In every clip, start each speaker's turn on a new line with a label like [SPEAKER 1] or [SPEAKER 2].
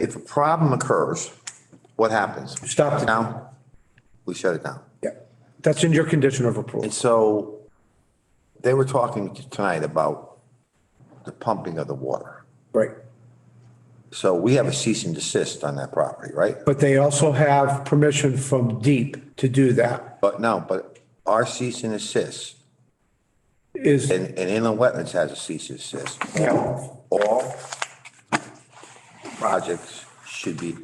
[SPEAKER 1] If a problem occurs, what happens?
[SPEAKER 2] Stop the-
[SPEAKER 1] Down? We shut it down.
[SPEAKER 2] Yeah, that's in your condition of approval.
[SPEAKER 1] And so they were talking tonight about the pumping of the water.
[SPEAKER 2] Right.
[SPEAKER 1] So we have a cease and desist on that property, right?
[SPEAKER 2] But they also have permission from DEEP to do that.
[SPEAKER 1] But no, but our cease and desist,
[SPEAKER 2] Is,
[SPEAKER 1] and, and inland wetlands has a cease and desist.
[SPEAKER 2] yeah,
[SPEAKER 1] all projects should be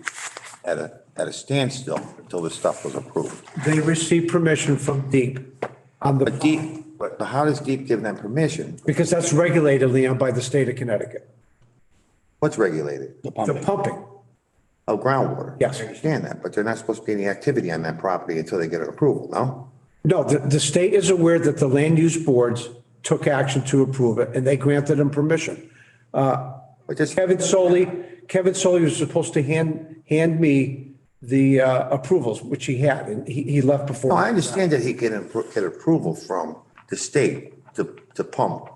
[SPEAKER 1] at a, at a standstill until this stuff was approved.
[SPEAKER 2] they receive permission from DEEP on
[SPEAKER 1] But
[SPEAKER 2] the,
[SPEAKER 1] deep, but how does deep give them permission?
[SPEAKER 2] because that's regulated, Leon, by the state of Connecticut.
[SPEAKER 1] What's regulated?
[SPEAKER 2] The pumping,
[SPEAKER 1] Oh, groundwater.
[SPEAKER 2] Yes.
[SPEAKER 1] I understand that, but they're not supposed to be any activity on that property until they get an approval, no?
[SPEAKER 2] no, the, the state is aware that the land use boards took action to approve it and they granted them permission.
[SPEAKER 1] But just,
[SPEAKER 2] Kevin Soley, Kevin Soley was supposed to hand, hand me the uh, approvals, which he had, and he, he left before.
[SPEAKER 1] no, I understand that he can appro- get approval from the state to, to pump.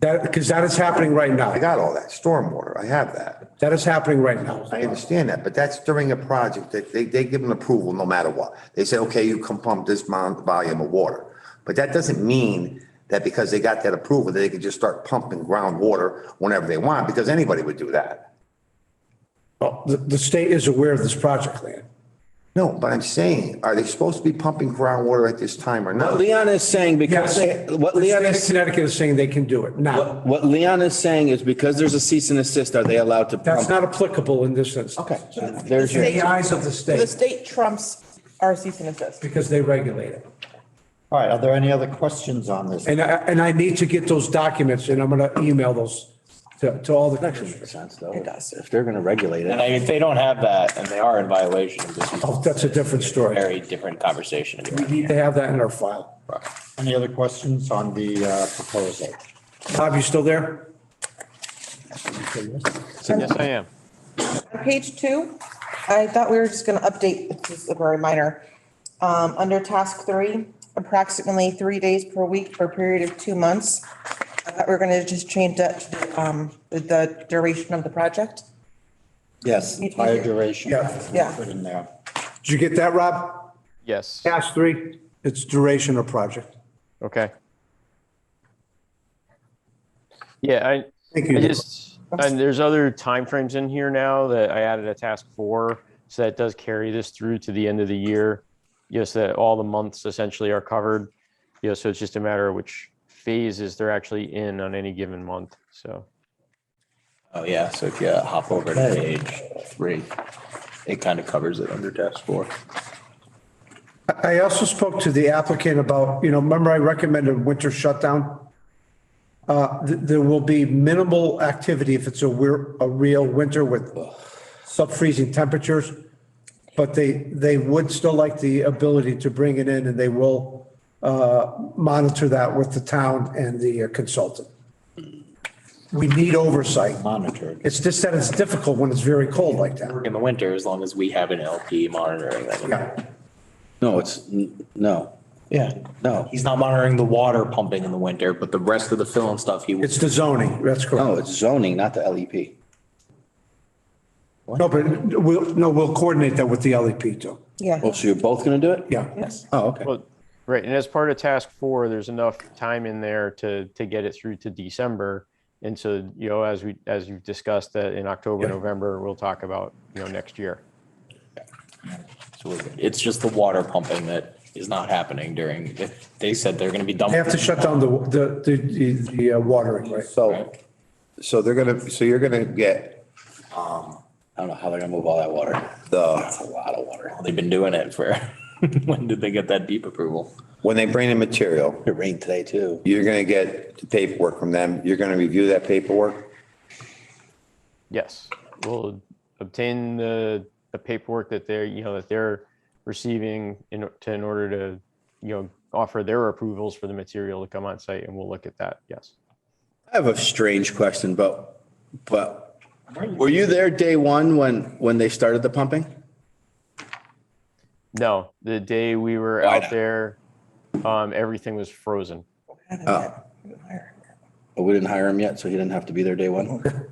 [SPEAKER 2] That, because that is happening right
[SPEAKER 1] I
[SPEAKER 2] now.
[SPEAKER 1] got all that, stormwater, I have that.
[SPEAKER 2] That is happening right now.
[SPEAKER 1] I understand that, but that's during a project that they, they give them approval no matter what. They say, okay, you can pump this amount, volume of water. But that doesn't mean that because they got that approval, they can just start pumping groundwater whenever they want, because anybody would do that.
[SPEAKER 2] Well, Oh, The, the state is aware of this project, Leon.
[SPEAKER 1] No, but I'm saying, are they supposed to be pumping groundwater at this time or not?
[SPEAKER 3] Leon is saying because, what
[SPEAKER 2] The
[SPEAKER 3] Leon
[SPEAKER 2] state of
[SPEAKER 3] is,
[SPEAKER 2] Connecticut is saying they can do it now.
[SPEAKER 3] what Leon is saying is because there's a cease and desist, are they allowed to
[SPEAKER 2] That's
[SPEAKER 3] pump?
[SPEAKER 2] not applicable in this instance.
[SPEAKER 3] Um, Okay, there's your,
[SPEAKER 2] In the eyes of the
[SPEAKER 4] The
[SPEAKER 2] state,
[SPEAKER 4] state trumps our cease and desist.
[SPEAKER 2] because they regulate it.
[SPEAKER 5] All right, are there any other questions on this?
[SPEAKER 2] And I, and I need to get those documents and I'm going to email those to, to all the
[SPEAKER 3] makes
[SPEAKER 2] commissioners.
[SPEAKER 3] sense though.
[SPEAKER 4] It does.
[SPEAKER 3] If they're going to regulate it,
[SPEAKER 6] And I- if they don't have that and they are in violation, this is
[SPEAKER 2] Oh, that's a different
[SPEAKER 6] a
[SPEAKER 2] story.
[SPEAKER 6] very different conversation.
[SPEAKER 2] We need to have that in our file.
[SPEAKER 5] Any other questions on the uh, proposal?
[SPEAKER 2] Bob, you still there?
[SPEAKER 7] Yes, I am.
[SPEAKER 4] On page two, I thought we were just gonna update, it's just a very minor. Um, under task three, approximately three days per week for a period of two months. I thought we were gonna just change that to, the, um, the- the duration of the project.
[SPEAKER 5] Yes, entire duration.
[SPEAKER 2] Yeah.
[SPEAKER 4] Yeah.
[SPEAKER 5] Put in there.
[SPEAKER 2] Did you get that, Rob?
[SPEAKER 7] Yes.
[SPEAKER 2] Task three, it's duration of project.
[SPEAKER 7] Okay. Yeah, I,
[SPEAKER 2] Thank
[SPEAKER 7] I
[SPEAKER 2] you.
[SPEAKER 7] just, and there's other timeframes in here now that I added a task four. So that does carry this through to the end of the year. You know, so that all the months essentially are covered. You know, so it's just a matter of which phases they're actually in on any given month. So,
[SPEAKER 6] Oh, yeah. So if you hop over to page three, it kind of covers it under task four.
[SPEAKER 2] I also spoke to the applicant about, you know, remember I recommended winter shutdown? Uh, th- there will be minimal activity if it's a weir, a real winter with sub-freezing temperatures. But they, they would still like the ability to bring it in and they will, uh, monitor that with the town and the uh, consultant. We need oversight.
[SPEAKER 5] Monitored.
[SPEAKER 2] It's just that it's difficult when it's very cold like that.
[SPEAKER 6] In the winter, as long as we have an LP monitoring them.
[SPEAKER 2] Yeah.
[SPEAKER 3] no, it's, n- no,
[SPEAKER 6] Yeah.
[SPEAKER 3] no,
[SPEAKER 6] He's not monitoring the water pumping in the winter, but the rest of the fill and stuff he.
[SPEAKER 2] It's the zoning, that's correct.
[SPEAKER 3] no, it's zoning, not the E LEP.
[SPEAKER 2] No, but we'll, no, we'll coordinate that with the LEP too.
[SPEAKER 4] Yeah.
[SPEAKER 3] Well, Oh, so you're both going to do it?
[SPEAKER 2] Yeah.
[SPEAKER 3] Oh, okay.
[SPEAKER 7] well, right. And as part of task four, there's enough time in there to, to get it through to December. And so, you know, as we, as you've discussed that in October,
[SPEAKER 2] Yeah.
[SPEAKER 7] November, we'll talk about, you know, next year.
[SPEAKER 6] So we're good. It's just the water pumping that is not happening during, they said they're going to be done.
[SPEAKER 2] They have to shut down the, the, the, the uh, watering, right?
[SPEAKER 1] So, so they're gonna, so you're gonna get
[SPEAKER 3] I don't know how they're going to move all that water.
[SPEAKER 1] the,
[SPEAKER 3] That's a lot of water.
[SPEAKER 6] They've been doing it for, when did they get that deep approval?
[SPEAKER 1] when they bring in material,
[SPEAKER 3] It rained today too.
[SPEAKER 1] you're gonna get the paperwork from them, you're gonna review that paperwork?
[SPEAKER 7] Yes, we'll obtain the, the paperwork that they're, you know, that they're receiving in, o- to, in order to, you know, offer their approvals for the material to come on site and we'll look at that, yes.
[SPEAKER 3] I have a strange question, but, but were you there day one when, when they started the pumping?
[SPEAKER 7] No, the day we were
[SPEAKER 3] Why
[SPEAKER 7] out
[SPEAKER 3] not?
[SPEAKER 7] there, um, everything was frozen.
[SPEAKER 3] Oh, we didn't hire him yet, so he didn't have to be there day one?